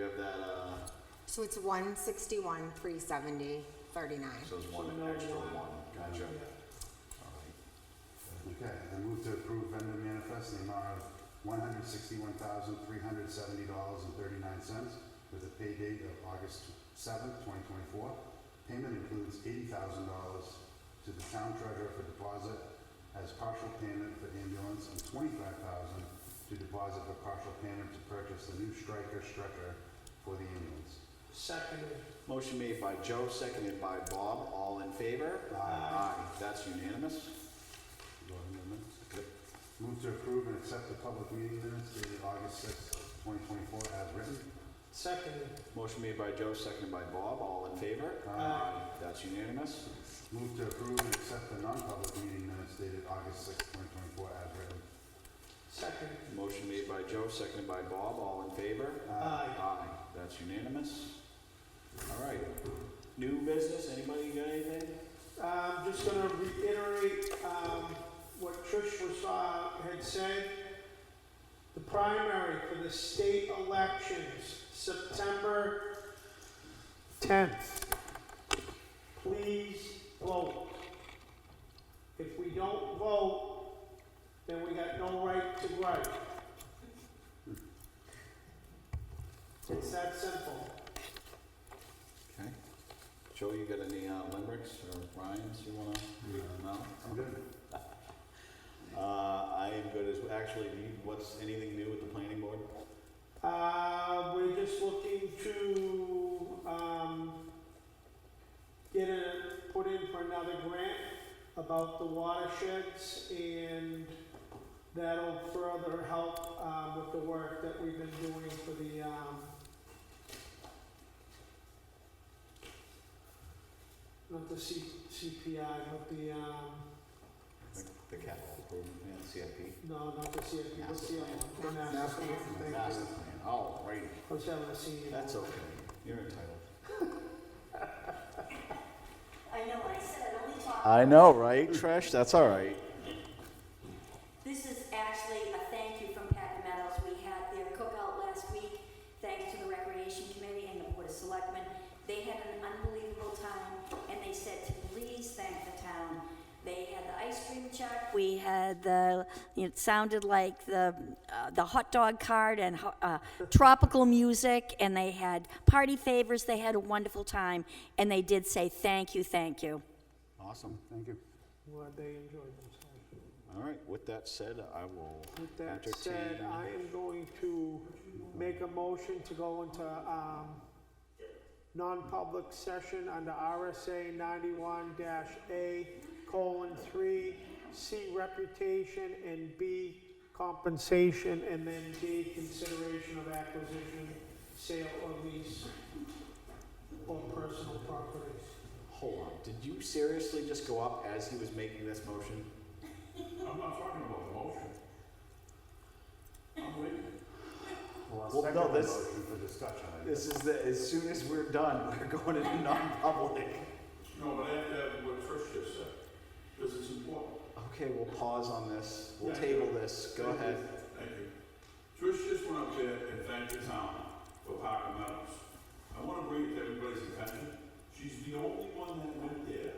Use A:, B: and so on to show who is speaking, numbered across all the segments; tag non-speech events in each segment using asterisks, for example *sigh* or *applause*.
A: of that, uh,
B: So it's one sixty-one, three seventy, thirty-nine.
A: so it's one extra one, gotcha. Alright.
C: Okay, I move to approve vendor manifest in the amount of one hundred sixty-one thousand, three hundred seventy dollars and thirty-nine cents with a pay date of August seventh, twenty twenty-four. Payment includes eighty thousand dollars to the town treasurer for deposit as partial payment for ambulance and twenty-five thousand to deposit for partial payment to purchase the new striker stretcher for the ambulance.
D: Seconded.
A: Motion made by Joe, seconded by Bob, all in favor?
C: Aye.
A: That's unanimous.
C: Go ahead, amendments.
A: Yep.
C: Move to approve and accept the public meeting minutes dated August sixth, twenty twenty-four as written.
D: Seconded.
A: Motion made by Joe, seconded by Bob, all in favor?
D: Aye.
A: That's unanimous.
C: Move to approve and accept the non-public meeting minutes dated August sixth, twenty twenty-four as written.
D: Seconded.
A: Motion made by Joe, seconded by Bob, all in favor?
D: Aye.
A: Aye, that's unanimous. All right, new business, anybody got anything?
D: I'm just gonna reiterate, um, what Trish was, uh, had said. The primary for the state elections, September tenth. Please vote. If we don't vote, then we got no right to gripe. It's that simple.
A: Okay. Joe, you got any uh, limericks or rhymes you wanna, no?
C: I'm good.
A: Uh, I am good as, actually, do you- what's, anything new with the planning board?
D: Uh, we're just looking to, um, get a, put in for another grant about the watersheds and that'll further help, um, with the work that we've been doing for the, um, not the C, CPI, but the, um,
A: The- The capital improvement plan, CIP?
D: no, not the CFP, what's the other one? The
B: Master
D: Master
B: plan.
D: plan.
A: Master plan, all righty,
D: I was having a senior.
A: that's okay, you're entitled.
E: I know I said I'd only talk.
A: I know, right, Trish, that's all right.
E: This is actually a thank you from Pat Meadows. We had their cookout last week, thanks to the Recreation Committee and the Board of Selectmen. They had an unbelievable time, and they said to please thank the town. They had the ice cream truck, we had the, it sounded like the, uh, the hot dog cart and ho- uh, tropical music, and they had party favors, they had a wonderful time, and they did say thank you, thank you.
A: Awesome,
C: Thank you.
D: Glad they enjoyed themselves.
A: all right, with that said, I will
D: With that said,
A: entertain.
D: I am going to make a motion to go into, um, non-public session under RSA ninety-one dash A colon three, C reputation and B compensation, and then D consideration of acquisition, sale or lease or personal property.
A: Hold on, did you seriously just go up as he was making this motion?
F: I'm not talking about the motion. I'm waiting.
C: Well,
A: Well,
C: I'll second
A: no,
C: the
A: this-
C: motion for discussion. I guess.
A: This is the, as soon as we're done, *laughs* we're going into non-public.
F: No, but after what Trish just said, because it's important.
A: Okay, we'll pause on this, we'll
F: Yeah.
A: table this, go
F: Thank you.
A: ahead.
F: Thank you. Trish just went up there and thanked the town for Parker Meadows. I want to bring it to everybody's attention. She's the only one that went there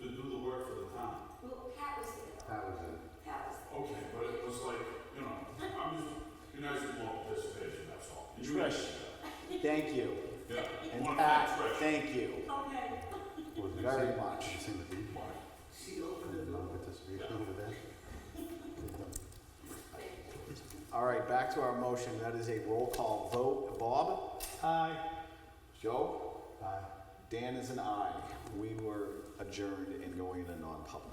F: to do the work for the town.
E: Well, Pat was there,
C: That was it.
E: Pat was there.
F: Okay, but it was like, you know, I'm just, you guys want more participation, that's all. And you
A: Trish.
F: guys-
A: Thank you.
F: Yeah, I
A: And
F: want to
A: Pat,
F: thank Trish.
A: thank you
C: Was it
A: very
C: sing-
A: much.
C: Sing the beat. Non-participation over there.
A: All right, back to our motion, that is a roll call vote. Bob?
D: Aye.
A: Joe? Dan is an aye. We were adjourned and going into non-public.